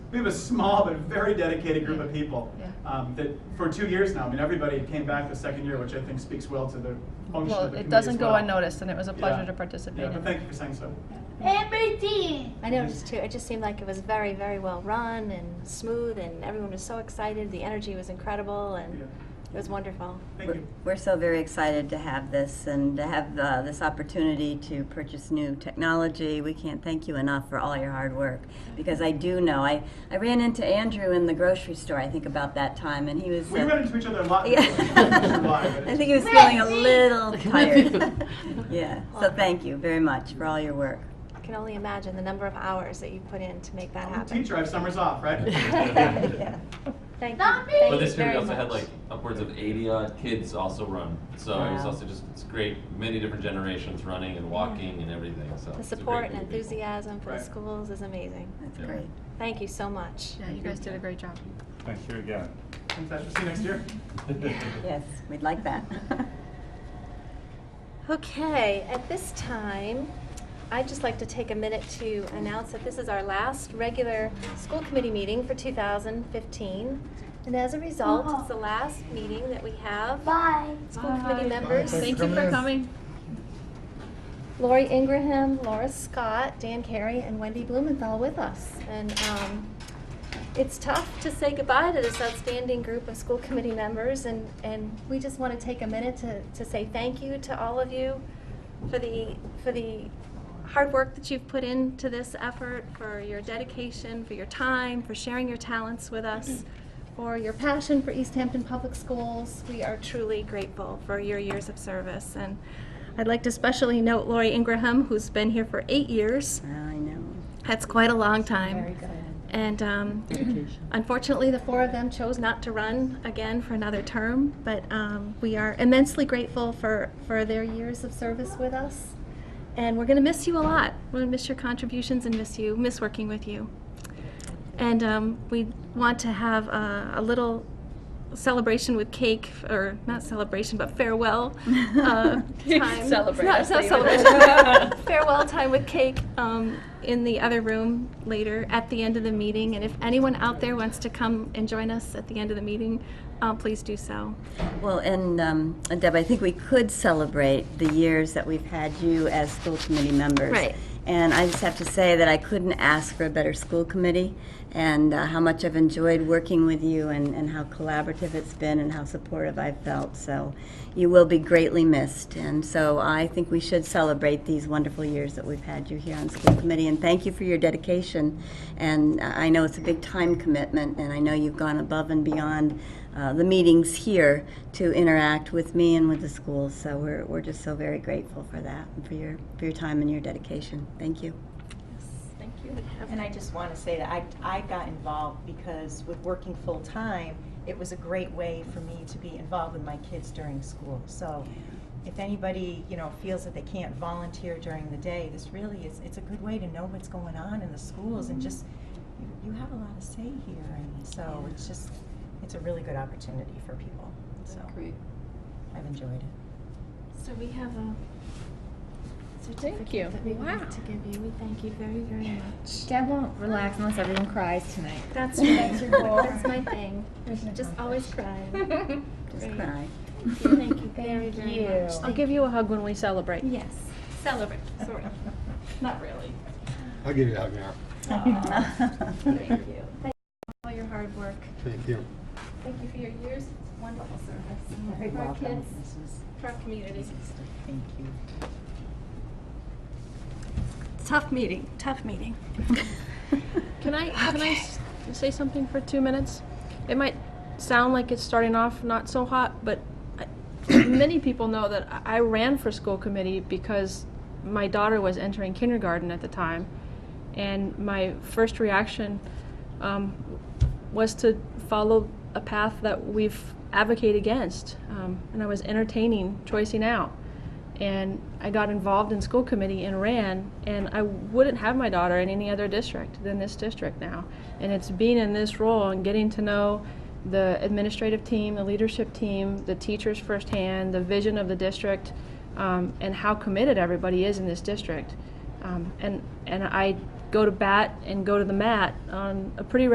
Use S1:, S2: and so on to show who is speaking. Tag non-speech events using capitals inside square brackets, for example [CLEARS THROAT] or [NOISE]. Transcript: S1: we have a small but very dedicated group of people
S2: Yeah.
S1: um, that, for two years now, I mean, everybody came back the second year, which I think speaks well to the function of
S2: Well,
S1: the committee
S2: it doesn't
S1: as
S2: go
S1: well.
S2: unnoticed, and it was a pleasure
S1: Yeah.
S2: to participate
S1: Yeah, but
S2: in.
S1: thank you for saying so.
S3: Everything.
S4: I noticed too. It just seemed like it was very, very well run and smooth, and everyone was so excited. The energy was incredible, and
S1: Yeah.
S4: it was wonderful.
S1: Thank
S5: We're-
S1: you.
S5: We're so very excited to have this and to have uh, this opportunity to purchase new technology. We can't thank you enough for all your hard work because I do know I, I ran into Andrew in the grocery store. I think about that time and he was.
S1: We
S5: uh, [LAUGHS]
S1: run into each other a lot. [LAUGHS]
S5: yeah.
S1: I'm not sure why, but
S5: [LAUGHS] I
S1: it's-
S5: think he was feeling a little tired. [LAUGHS] yeah. So thank you very much for all your work.
S4: I can only imagine the number of hours that you put in to make that
S1: I'm a
S4: happen.
S1: teacher, I have summers off, right?
S4: yeah. Thank you.
S3: Not me.
S4: Thank
S6: But
S4: you
S6: this year we
S4: very
S6: also had
S4: much.
S6: like upwards of 80 odd kids also run. So it was
S5: Wow.
S6: also just it's great, many different generations running and walking and everything. So
S4: the
S6: it's a great
S4: support and
S6: group of people.
S4: enthusiasm for
S1: Right.
S4: the schools is amazing.
S5: [LAUGHS] That's
S6: Yeah.
S5: great.
S4: Thank you so much.
S2: Yeah, you guys did a great job.
S7: Thank you again.
S1: Fantastic. See you next year.
S5: Yes, we'd like that. [LAUGHS]
S4: Okay, at this time, I'd just like to take a minute to announce that this is our last regular school committee meeting for 2015. And as a result, it's the last meeting that we have.
S3: Bye.
S4: School committee
S2: Bye.
S4: members.
S2: Thank you for coming.
S4: Lori Ingraham, Laura Scott, Dan Carey, and Wendy Blumenthal with us. And um, it's tough to say goodbye to this outstanding group of school committee members, and, and we just want to take a minute to, to say thank you to all of you for the, for the hard work that you've put into this effort, for your dedication, for your time, for sharing your talents with us, for your passion for East Hampton Public Schools. We are truly grateful for your years of service. And I'd like to especially note Lori Ingraham, who's been here for eight years.
S5: I know.
S4: That's quite a long time. And um, [CLEARS THROAT] unfortunately, the four of them chose not to run again for another term, but um, we are immensely grateful for, for their years of service with us. And we're going to miss you a lot. We're going to miss your contributions and miss you, miss working with you. And um, we want to have a, a little celebration with cake, or not celebration, but [LAUGHS] farewell uh, time.
S2: Celebrate,
S4: No,
S2: I
S4: it's not
S2: see.
S4: [LAUGHS] celebration. farewell time with cake um, in the other room later at the end of the meeting. And if anyone out there wants to come and join us at the end of the meeting, uh, please do so.
S5: Well, and um, Deb, I think we could celebrate the years that we've had you as school committee members.
S4: Right.
S5: And I just have to say that I couldn't ask for a better school committee and uh, how much I've enjoyed working with you and, and how collaborative it's been and how supportive I've felt. So you will be greatly missed. And so I think we should celebrate these wonderful years that we've had you here on school committee. And thank you for your dedication. And uh, I know it's a big time commitment and I know you've gone above and beyond uh, the meetings here to interact with me and with the schools. So we're, we're just so very grateful for that and for your, for your time and your dedication. Thank you.
S4: Thank you.
S8: And I just want to say that I, I got involved because with working full-time, it was a great way for me to be involved with my kids during school. So if anybody, you know, feels that they can't volunteer during the day, this really is, it's a good way to know what's going on in the schools and just, you- you have a lot to say here. And so it's just, it's a really good opportunity for people. So I've enjoyed it.
S4: So we have a
S2: Thank you.
S4: that we wanted to give you. We thank you very, very much.
S9: Dad won't relax unless everyone cries tonight.
S4: That's
S5: right.
S9: [LAUGHS]
S4: That's
S5: your goal.
S4: my thing. Just always crying.
S5: Just
S4: Great.
S5: cry.
S4: Thank you very, very much.
S2: I'll give you a hug when we celebrate.
S4: Yes, celebrate, sort of. Not really.
S10: I'll give you a hug now.
S4: Thank you. Thank you for all your hard work.
S10: Thank you.
S4: Thank you for your years of wonderful service. For our kids, for our community.
S8: Thank you.
S4: Tough meeting, tough meeting.
S2: Can I, can I s- say something for two minutes? It might sound like it's starting off not so hot, but I, [CLEARS THROAT] many people know that I I ran for school committee because my daughter was entering kindergarten at the time. And my first reaction um, was to follow a path that we've advocated against. Um, and I was entertaining choicing out. And I got involved in school committee and ran, and I wouldn't have my daughter in any other district than this district now. And it's being in this role and getting to know the administrative team, the leadership team, the teachers firsthand, the vision of the district, um, and how committed everybody is in this district. Um, and, and I go to bat and go to the mat on a pretty